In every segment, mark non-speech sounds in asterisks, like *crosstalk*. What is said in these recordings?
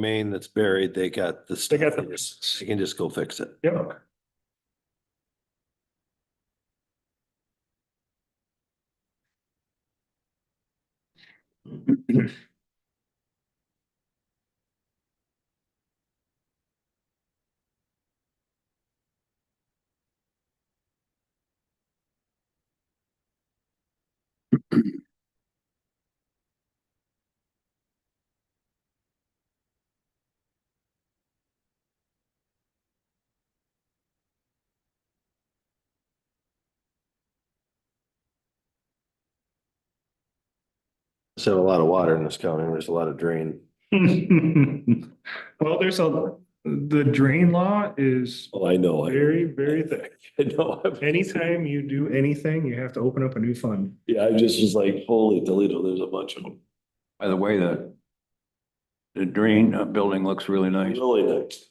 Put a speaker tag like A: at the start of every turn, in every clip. A: main that's buried, they got the.
B: They got the-
A: They can just go fix it.
B: Yep.
A: Said a lot of water in this county. There's a lot of drain.
B: *laughs* Well, there's a, the drain law is
A: Oh, I know.
B: very, very thick.
A: *laughs* I know.
B: Anytime you do anything, you have to open up a new fund.
A: Yeah, I just was like, holy Toledo, there's a bunch of them.
C: By the way, the the drain uh, building looks really nice.
A: Really nice.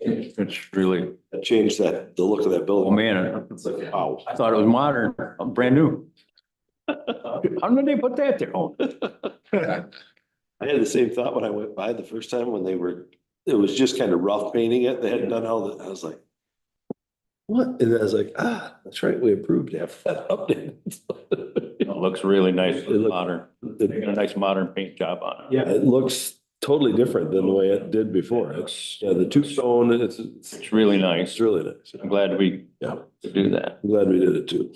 C: It's really,
A: That changed that, the look of that
C: oh
A: building.
C: man,
A: It's like, wow.
C: I thought it was modern, uh,
A: *laughs*
C: brand new. How did they put that there? Oh,
A: I had the same thought when I went by the first time when they were, it was just kind of rough painting it. They hadn't done all that. I was like, what? And I was like, ah, that's right. We approved after that *laughs* update.
C: It looks really nice,
A: It looked-
C: modern. They got a nice modern paint job on it.
A: Yeah, it looks totally different than the way it did before. It's, yeah, the two stone, it's, it's,
C: It's really nice.
A: it's really nice.
C: I'm glad we
A: Yeah,
C: could do that.
A: I'm glad we did it too.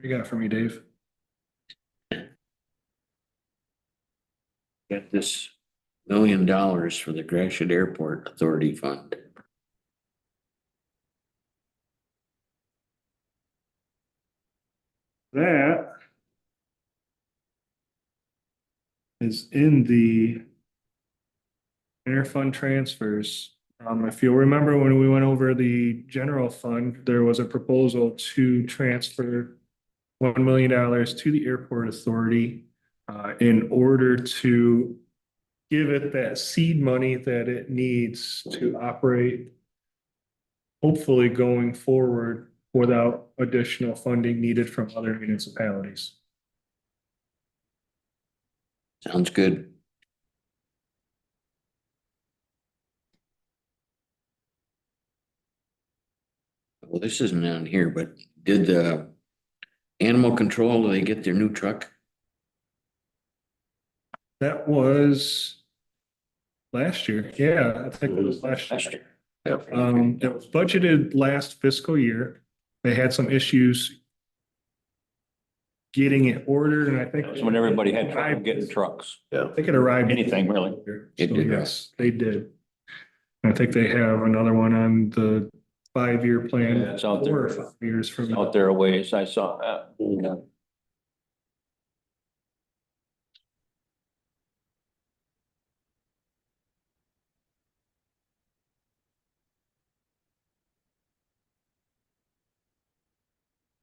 B: You got it for me, Dave?
D: Got this million dollars for the Gratiot Airport Authority Fund.
B: That is in the interfund transfers. Um, if you'll remember when we went over the general fund, there was a proposal to transfer one million dollars to the airport authority uh, in order to give it that seed money that it needs to operate hopefully going forward without additional funding needed from other municipalities.
D: Sounds good. Well, this isn't on here, but did the animal control, do they get their new truck?
B: That was last year. Yeah, I think it was last
C: Last
B: year. Um, it was budgeted last fiscal year. They had some issues getting it ordered and I think.
C: That was When everybody had trouble getting trucks,
B: I think it arrived.
C: anything really.
D: It
B: So,
D: did.
B: Yes, they did. I think they have another one on the five-year plan.
C: Yeah, it's out there.
B: Four or five Years from. now.
C: Out there a ways, I saw that. Yeah.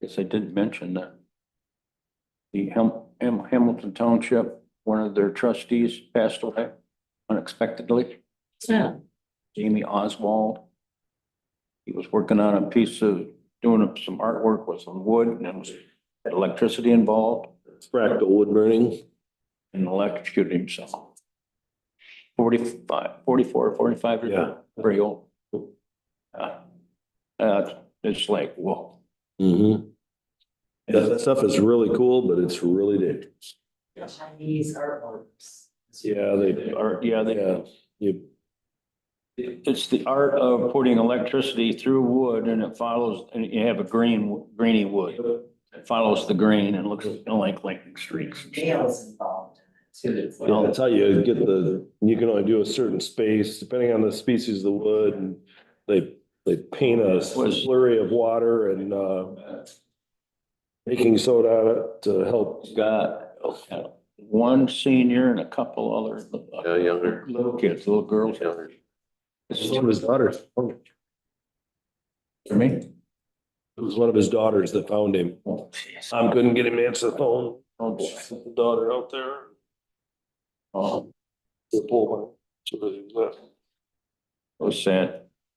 C: Guess I didn't mention that. The Ham- Ham- Hamilton Township, one of their trustees passed away unexpectedly.
D: Yeah.
C: Jamie Oswald. He was working on a piece of, doing some artwork with some wood and it was had electricity involved
A: Fractal wood burning.
C: and electrocuted himself. Forty-five, forty-four, forty-five years old, very old. Uh, Uh, it's like, whoa.
A: Mm-hmm. That, that stuff is really cool, but it's really dangerous.
E: Chinese herbs.
A: Yeah, they
C: Or, yeah, they,
A: Yeah, you,
C: It's the art of putting electricity through wood and it follows, and you have a green, greeny wood. It follows the green and looks you know, like lightning streaks. and stuff.
E: Nails involved in it too.
A: I'll tell you, you get the, you can only do a certain space depending on the species of the wood and they, they paint a slurry of water and, uh, baking soda on it to help.
C: Got uh, one senior and a couple other. uh,
D: Yeah, younger.
C: Little kids, little girls. This is
A: One of his daughters, it
C: for me.
A: was one of his daughters that found him.
C: Oh, jeez.
A: Tom couldn't get him to answer the phone.
C: Oh, boy.
A: His Daughter out there.
C: Oh,
A: the pole barn, so that he left.
C: so sad.